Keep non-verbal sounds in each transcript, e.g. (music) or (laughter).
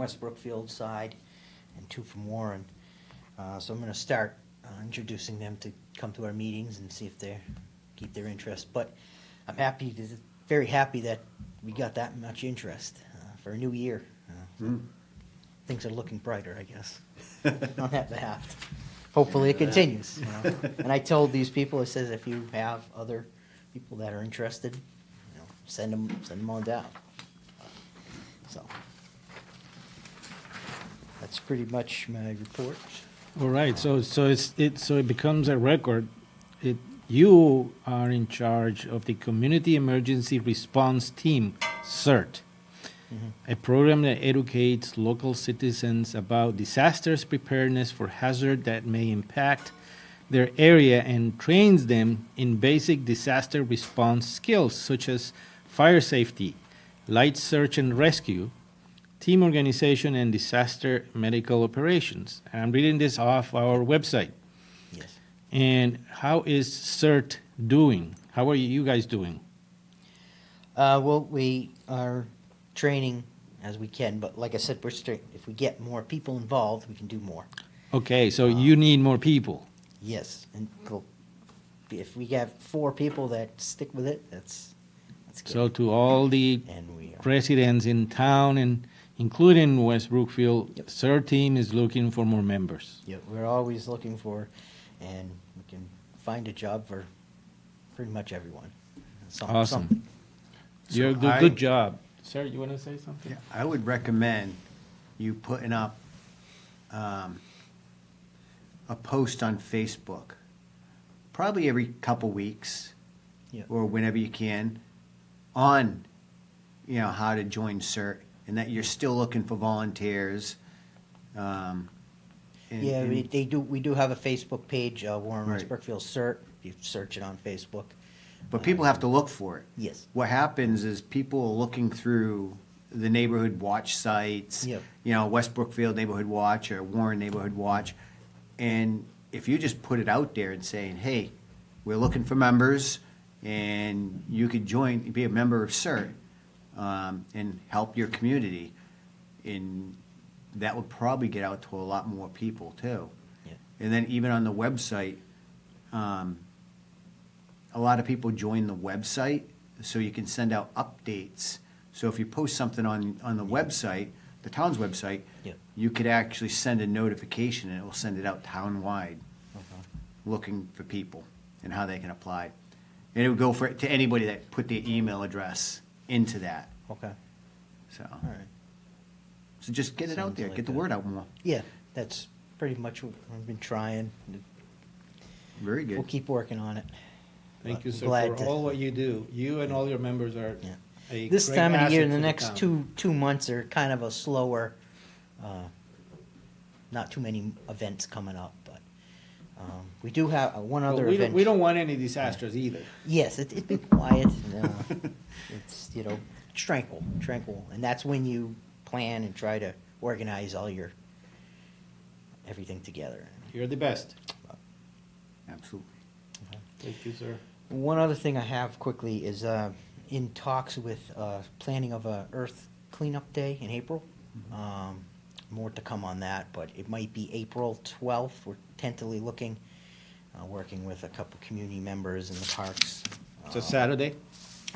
West Brookfield side and two from Warren. Uh, So I'm going to start uh, introducing them to come to our meetings and see if they keep their interest. But I'm happy, to- very happy that we got that much interest uh, for a new year. Uh, Things are looking brighter, I guess, on that behalf. Hopefully it continues. you know. And I told these people, I says, if you have other people that are interested, you know, send them, send them on down. So. That's pretty much my report. All right, so, so it's, it, so it becomes a record. It, you are in charge of the Community Emergency Response Team, CERT, a program that educates local citizens about disasters preparedness for hazard that may impact their area and trains them in basic disaster response skills such as fire safety, light search and rescue, team organization and disaster medical operations. And I'm reading this off our website. Yes. And how is CERT doing? How are you guys doing? Uh, well, we are training as we can, but like I said, we're straight. If we get more people involved, we can do more. Okay, so Uh, you need more people. Yes, and we'll- if we have four people that stick with it, that's that's good. So to all the and we are. residents in town and including West Brookfield, Yep. CERT team is looking for more members. Yeah, we're always looking for, and we can find a job for pretty much everyone. Some, Awesome. some- You're So do I- good job. Sir, you want to say something? Yeah, I would recommend you putting up um, a post on Facebook, probably every couple weeks Yeah. or whenever you can, on, you know, how to join CERT and that you're still looking for volunteers. um, and- Yeah, we, and- they do. We do have a Facebook page, uh, Warren West Right. Brookfield Cert. If you search it on Facebook, But people have to look for it. Yes. What happens is people are looking through the neighborhood watch sites. Yep. You know, West Brookfield Neighborhood Watch or Warren Neighborhood Watch. And if you just put it out there and saying, hey, we're looking for members and you could join, be a member of CERT um, and help your community. And that would probably get out to a lot more people too. Yeah. And then even on the website, um, a lot of people join the website, so you can send out updates. So if you post something on, on the website, the town's website, Yeah. you could actually send a notification, and it will send it out townwide, looking for people and how they can apply. And it would go for, to anybody that put their email address into that, Okay. so. All right. So just get it out Sounds there, like get the a- word out more, Yeah, that's pretty much what I've been trying. very We'll good. keep working on it. Thank you, I'm sir, glad for to- all what you do. You and all your members are Yeah. a This great time of the year, asset the to next town. two, two months are kind of a slower, uh, not too many events coming up, but, um, we do have uh, one But other we don't- event. We don't want any disasters either. Yes, it, it'd be quiet. and, (laughs) uh, it's, you know, tranquil, tranquil. And that's when you plan and try to organize all your, everything together. You're the best. Absolutely. Thank you, sir. One other thing I have quickly is uh, in talks with uh, planning of a Earth Cleanup Day in April. Um, more to come on that, but it might be April 12th. We're tentatively looking, uh, working with a couple community members in the parks. It's a Um, Saturday.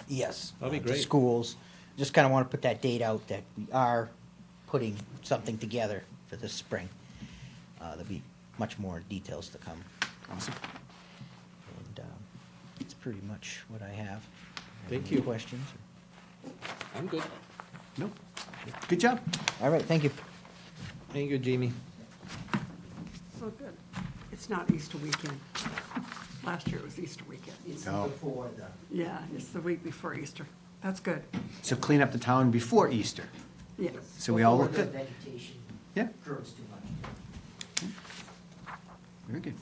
Yes. That'd be uh, to great. Schools. Just kind of want to put that date out that we are putting something together for this spring. Uh, There'll be much more details to come. Awesome. And um, that's pretty much what I have. Thank Any you. Questions? I'm good. Nope. Good job. All right, thank you. Thank you, Jimmy. So good. It's not Easter weekend. Last year it was Easter weekend. Oh. before the. Yeah, it's the week before Easter. That's good. So clean up the town before Easter, Yeah. so we all look good. vegetation Yeah, grows too much. very good.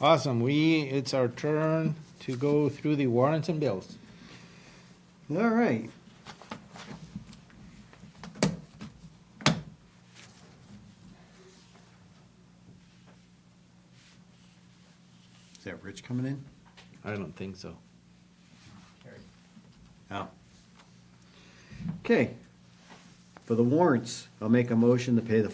Awesome. We, it's our turn to go through the warrants and bills. All right. Is that Rich coming in? I don't think so. Oh. Okay. For the warrants, I'll make a motion to pay the